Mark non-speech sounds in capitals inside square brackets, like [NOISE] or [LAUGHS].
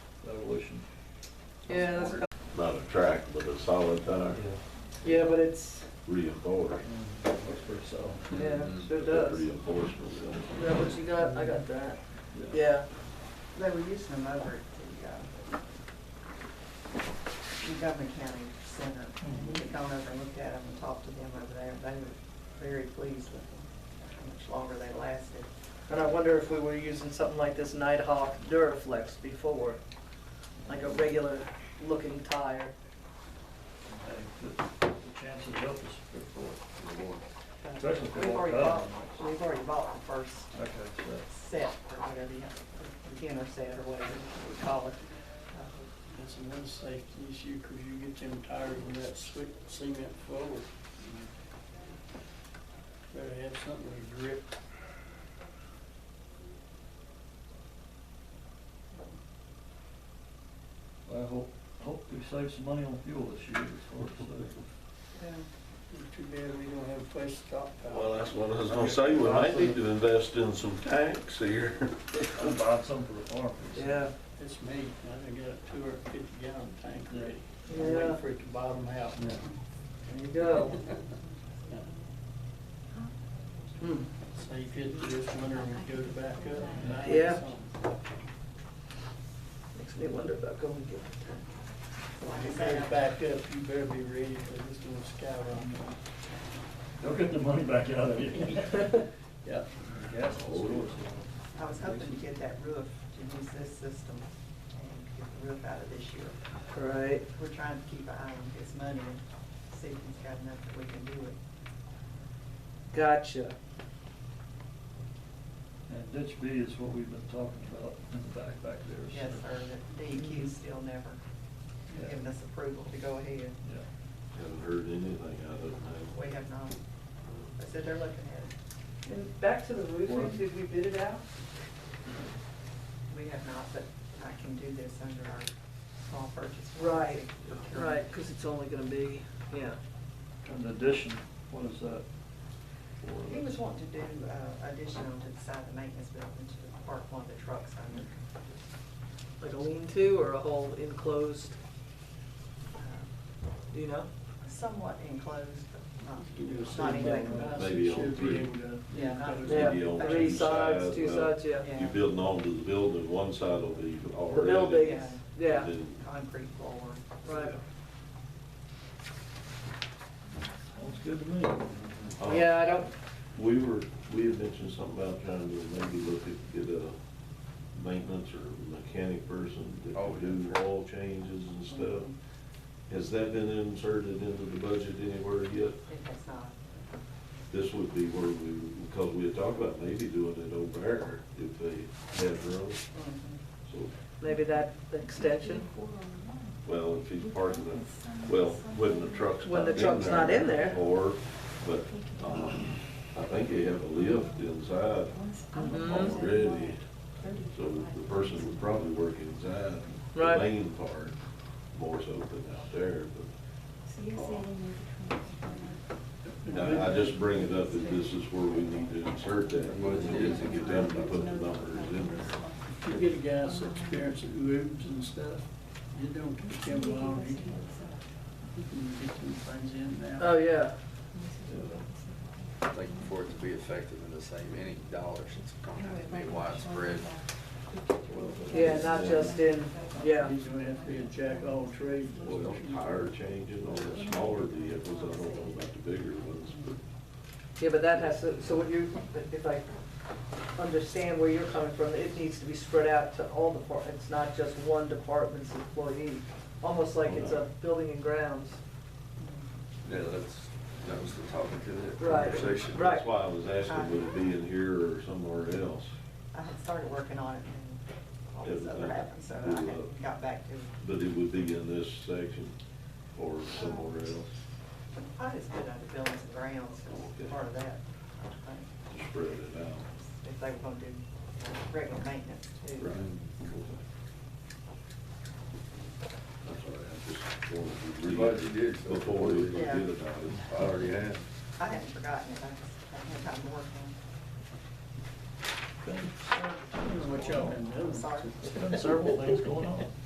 Yeah, that's, not a track, but a solid tire yeah, but it's, reinforced. Looks pretty solid. yeah, Mm-hmm. sure does. Is Reinforcement. yeah. that what you got? I got that. Yeah. They were using them over at the, uh, Montgomery County Center. We've gone over and looked at them and talked to them over there. They were very pleased with them, how much longer they lasted. And I wonder if we were using something like this Nighthawk Duraflex before, like a regular looking tire. The chances of us before. Especially if they We've walk already up. bought, we've already bought the first Okay, so. set or whatever, you beginner set or whatever we call it. Uh, That's another safety issue, cause you get them tires when that sweet cement forward. Better have something with grip. I hope, hope we save some money on fuel this year, it's hard to say. It's Too bad we don't have a place to stockpile. Well, that's what I was gonna say, we might need to invest in some tanks here. [LAUGHS] I'll buy some for the farm. Yeah, It's me, I done got a two hundred fifty gallon tank ready. I'm Yeah. waiting for it to bottom out. Yeah. there you [LAUGHS] go. Hmm. So you could do this winter and go to back up. and I had Yeah. some. Makes me wonder about going to get When it goes back up, you better be ready, cause it's gonna skyrocket. They'll get the money back out of you. Yeah. [LAUGHS] Gas will store I was hoping to get that roof, to use this system and get the roof out of this year. [LAUGHS] Right. We're trying to keep an eye on his money and see if he's got enough that we can do it. Gotcha. And ditch B is what we've been talking about in the back, back there. so- Yes, sir, the DEQ still never Yeah. given us approval to go ahead. Yeah. Haven't heard anything out of We them. have not. I said they're looking at it. And back to the roofing, did we bid it out? We have not, but I can do this under our small purchase. Right, policy procurement. right, because it's only gonna be, yeah. And addition, what is that? for? He was wanting to do uh, addition on to the side of the maintenance building to park one of the trucks under. Like a lean-to or a whole enclosed, do you know? uh, Somewhat enclosed, but not, You do a not cement anything. on about it, it. Maybe you should on be three. able to- Yeah, not- Maybe Yeah, on Three two sides, two well, sides, yeah. You're building onto the building, one side will be The already. building, Yeah. yeah, And then- Concrete floor. right. Sounds good to me. Uh, Yeah, I don't, We were, we had mentioned something about trying to maybe look at, get a maintenance or mechanic person that Oh, could do oil changes and stuff. Has that been inserted into the budget anywhere yet? It has not. This would be where we, because we had talked about maybe doing it over there if they had room. So, maybe that extension, well, if he's parking the, well, when the truck's When not in there. the truck's not in there. Or, but, um, I think they have a lift inside Mm-hmm. Mhm. already. So the person would probably work inside the Right. main part more so than out there, but So you're saying you I, I just bring it up that this is where we need to insert that, whether it's to get them to put the numbers in there. If you get a guy that's experienced at roofs and stuff, it don't take him long, he can, he can get some things in now. oh, yeah. I think for it to be effective and to save any dollars, it's gonna have to be widespread. Yeah, not just in, yeah, He's gonna have to be a jack all trades. Well, tire changes on the smaller vehicles, I don't know about the bigger ones, but yeah, but that has to, so what you, if I understand where you're coming from, it needs to be spread out to all departments, not just one department's employee. Almost like it's a building and grounds. Yeah, that's, that was the topic of the Right. conversation. Right. that's why I was asking, would it be in here or somewhere else? I had started working on it and all this other happened, so I hadn't got back to it. But it would be in this section or somewhere else, I just put out the buildings and grounds as part of that, I think, to spread it out. if they were gonna do regular maintenance too. Right. That's all right, I just wanted to I'm read glad you did. Before we forget Yeah. about it. I already have. I hadn't forgotten it, I just, I had time to work on I don't know what y'all been it. doing. Sorry. Several things going on.